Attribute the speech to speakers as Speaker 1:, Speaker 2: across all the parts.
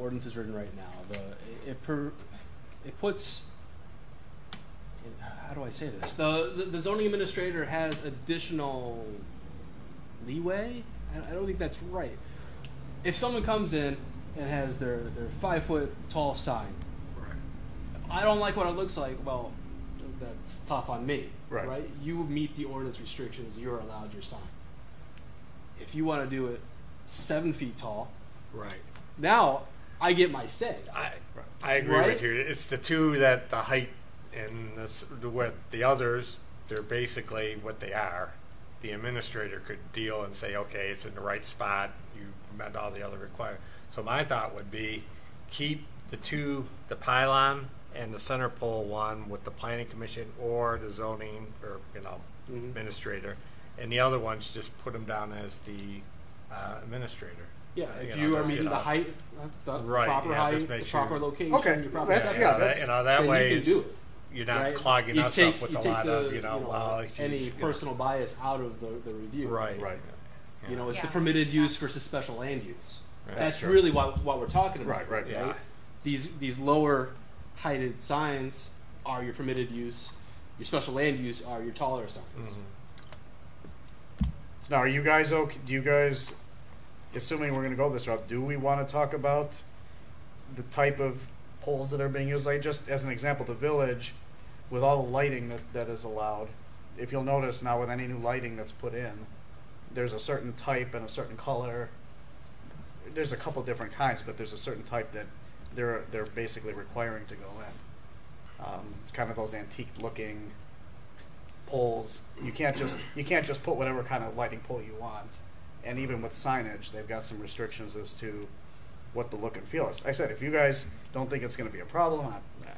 Speaker 1: ordinance is written right now, the, it per, it puts, it- how do I say this? The, the- the zoning administrator has additional leeway? I, I don't think that's right. If someone comes in and has their, their five foot tall sign, if I don't like what it looks like, well, that's tough on me.
Speaker 2: Right.
Speaker 1: You meet the ordinance restrictions, you're allowed your sign. If you wanna do it seven feet tall,
Speaker 3: Right.
Speaker 1: now I get my say.
Speaker 3: I, I agree
Speaker 1: Right?
Speaker 3: with you. It's the two that the height and the, s- the what the others they're basically what they are. The administrator could deal and say, okay, it's in the right spot. You met all the other requirements. So my thought would be keep the two, the pylon and the center pole one with the planning commission or the zoning or you know
Speaker 1: Mhm.
Speaker 3: administrator, and the other ones just put them down as the uh, administrator.
Speaker 1: Yeah,
Speaker 3: Uh,
Speaker 1: if
Speaker 3: know,
Speaker 1: you are
Speaker 3: just,
Speaker 1: meeting the
Speaker 3: know,
Speaker 1: height, the
Speaker 3: Right,
Speaker 1: proper
Speaker 3: yeah,
Speaker 1: height,
Speaker 3: just
Speaker 1: the
Speaker 3: make sure-
Speaker 1: proper location,
Speaker 2: Okay,
Speaker 1: your proper
Speaker 2: that's-
Speaker 1: height,
Speaker 2: yeah,
Speaker 3: that-
Speaker 2: that's-
Speaker 3: you know that
Speaker 1: then you
Speaker 3: way
Speaker 1: can
Speaker 3: it's-
Speaker 1: do it,
Speaker 3: you're not
Speaker 1: right?
Speaker 3: clogging
Speaker 1: You
Speaker 3: us
Speaker 1: take-
Speaker 3: up with
Speaker 1: you
Speaker 3: a
Speaker 1: take
Speaker 3: lot
Speaker 1: the,
Speaker 3: of you know, well, he's,
Speaker 1: any
Speaker 3: you know,
Speaker 1: personal bias out of the, the review.
Speaker 3: right,
Speaker 2: Right.
Speaker 1: You know, it's the
Speaker 4: Yeah.
Speaker 1: permitted use versus special land use.
Speaker 3: Right.
Speaker 1: That's
Speaker 3: That's true.
Speaker 1: really what, what we're talking about.
Speaker 2: Right, right,
Speaker 3: yeah.
Speaker 1: These, these lower heighted signs are your permitted use, your special land use are your taller signs.
Speaker 3: Mm-hmm.
Speaker 2: Now, are you guys okay? Do you guys, assuming we're going to go this route, do we want to talk about the type of poles that are being used? Like, just as an example, the village with all the lighting that, that is allowed. If you'll notice now, with any new lighting that's put in, there's a certain type and a certain color. There's a couple different kinds, but there's a certain type that they're they're basically requiring to go in. Um, kind of those antique looking poles. You can't just you can't just put whatever kind of lighting pole you want. And even with signage, they've got some restrictions as to what the look and feel is. Like I said, if you guys don't think it's going to be a problem, I, I-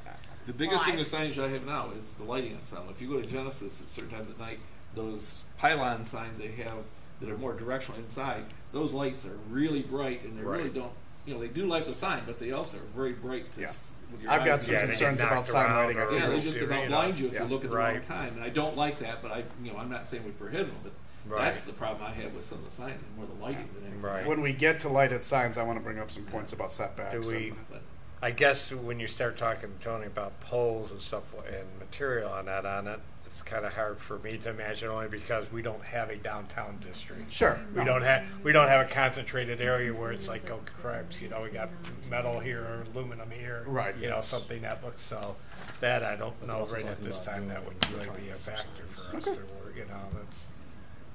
Speaker 5: The biggest thing
Speaker 4: Why?
Speaker 5: with signage I have now is the lighting on some. If you go to Genesis at certain times at night, those pylon signs they have that are more directional inside, those lights are really bright and they really
Speaker 3: Right.
Speaker 5: don't, you know, they do light the sign, but they also are very bright to
Speaker 2: Yeah.
Speaker 5: s- with your
Speaker 2: I've got
Speaker 5: eyes.
Speaker 2: some
Speaker 3: Yeah, they get
Speaker 2: concerns about
Speaker 3: knocked
Speaker 2: sign
Speaker 3: around
Speaker 2: lighting. I
Speaker 3: or-
Speaker 2: think
Speaker 5: Yeah, they
Speaker 2: it's-
Speaker 5: just
Speaker 3: you
Speaker 5: about
Speaker 3: know.
Speaker 5: blind you if
Speaker 2: Yeah.
Speaker 5: you look at the wrong
Speaker 3: Right.
Speaker 5: time, and I don't like that. But I, you know, I'm not saying we prohibit them, but
Speaker 3: Right.
Speaker 5: that's the problem I have with some of the signs is more the lighting than anything.
Speaker 3: Right.
Speaker 2: when we get to lighted signs, I want to bring up some points about setbacks.
Speaker 3: Do we-
Speaker 2: and-
Speaker 5: But
Speaker 3: I guess when you start talking, Tony, about poles and stuff and material on that on it, it's kind of hard for me to imagine only because we don't have a downtown district.
Speaker 2: sure.
Speaker 3: We
Speaker 2: no.
Speaker 3: don't have we don't have a concentrated area where it's like oh craps, you know, we got metal here, aluminum here,
Speaker 2: Right.
Speaker 3: You know, something that looks so. That I don't
Speaker 1: But they're
Speaker 3: know
Speaker 1: also
Speaker 3: right at
Speaker 1: talking
Speaker 3: this
Speaker 1: about
Speaker 3: time. That
Speaker 1: doing
Speaker 3: would
Speaker 1: it
Speaker 3: really
Speaker 1: for
Speaker 3: be a
Speaker 1: Chinese
Speaker 3: factor for us
Speaker 2: facilities.
Speaker 3: to work. You know, that's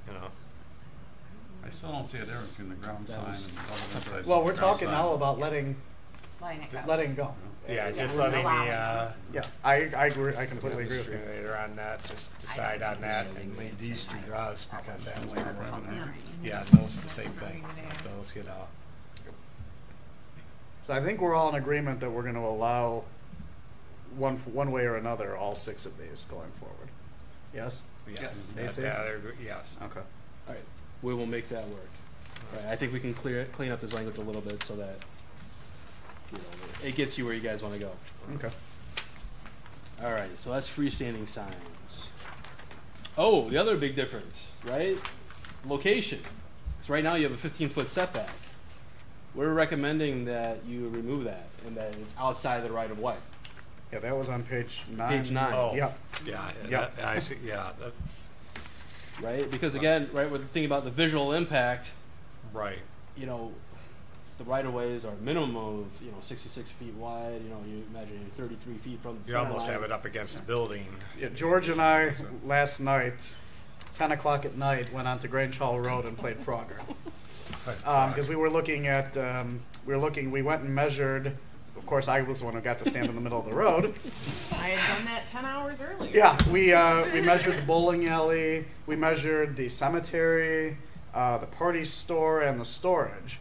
Speaker 3: you know.
Speaker 6: I still don't see a difference between the ground
Speaker 1: That
Speaker 6: sign and
Speaker 1: was-
Speaker 6: the other sign.
Speaker 2: Well, we're talking now about letting
Speaker 4: Letting it go.
Speaker 2: letting go.
Speaker 3: Yeah, just
Speaker 4: we're
Speaker 3: letting the,
Speaker 4: allowing
Speaker 3: uh,
Speaker 2: Yeah, I, I agree. I completely agree with you.
Speaker 3: administrator on that, just decide on that and leave these two to us because that way we're
Speaker 4: Oh,
Speaker 3: on there. Yeah, Mm-hmm. those are the same thing, those, you know.
Speaker 2: So I think we're all in agreement that we're going to allow one one way or another all six of these going forward. Yes.
Speaker 3: Yes,
Speaker 2: Yes.
Speaker 3: that- that I agree- yes.
Speaker 2: Okay.
Speaker 1: All right, we will make that work. All right, I think we can clear, clean up this language a little bit so that, you know, it gets you where you guys wanna go.
Speaker 2: Okay.
Speaker 1: All right, so that's freestanding signs. Oh, the other big difference, right? Location. Because right now you have a 15 foot setback. We're recommending that you remove that and that it's outside the right of way.
Speaker 2: Yeah, that was on page nine.
Speaker 1: Page nine,
Speaker 3: Oh,
Speaker 2: Yeah.
Speaker 3: yeah, and
Speaker 2: Yeah.
Speaker 3: that- I see, yeah, that's,
Speaker 1: right? Because again, right, with the thing about the visual impact,
Speaker 3: right,
Speaker 1: you know, the right of ways are minimum of you know 66 feet wide. You know, you imagine you're 33 feet from the
Speaker 3: you
Speaker 1: center
Speaker 3: almost
Speaker 1: line.
Speaker 3: have it up against the building.
Speaker 2: Yeah, George and I last night, ten o'clock at night, went on to Grange Hall Road and played Frogger because we were looking at um, we were looking. We went and measured. Of course, I was the one who got to stand in the middle of the road.
Speaker 4: I had done that ten hours earlier.
Speaker 2: Yeah, we uh, we measured the bowling alley, we measured the cemetery, uh, the party store, and the storage,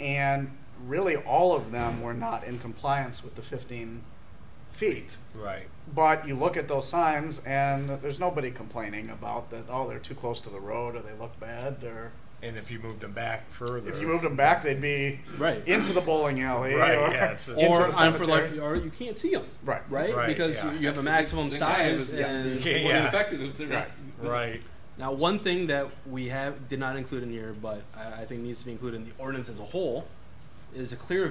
Speaker 2: and really all of them were not in compliance with the 15 feet.
Speaker 3: Right,
Speaker 2: But you look at those signs, and there's nobody complaining about that. Oh, they're too close to the road, or they look bad, or
Speaker 3: and if you moved them back further.
Speaker 2: if you moved them back, they'd be
Speaker 1: Right.
Speaker 2: into the bowling alley,
Speaker 3: Right,
Speaker 2: Or,
Speaker 3: yeah, it's a-
Speaker 2: into
Speaker 1: or
Speaker 2: the
Speaker 1: I'm for
Speaker 2: cemetery.
Speaker 1: like, or you can't see them,
Speaker 2: right,
Speaker 1: right?
Speaker 3: Right,
Speaker 1: because
Speaker 3: yeah.
Speaker 1: you you have a
Speaker 5: that's the
Speaker 1: maximum
Speaker 5: thing I have
Speaker 1: size.
Speaker 5: is, yeah,
Speaker 1: and
Speaker 3: Okay,
Speaker 5: it wouldn't
Speaker 3: yeah.
Speaker 5: affect it if they're not-
Speaker 3: Right,
Speaker 1: now, one thing that we have did not include in here, but I, I think needs to be included in the ordinance as a whole, is a clear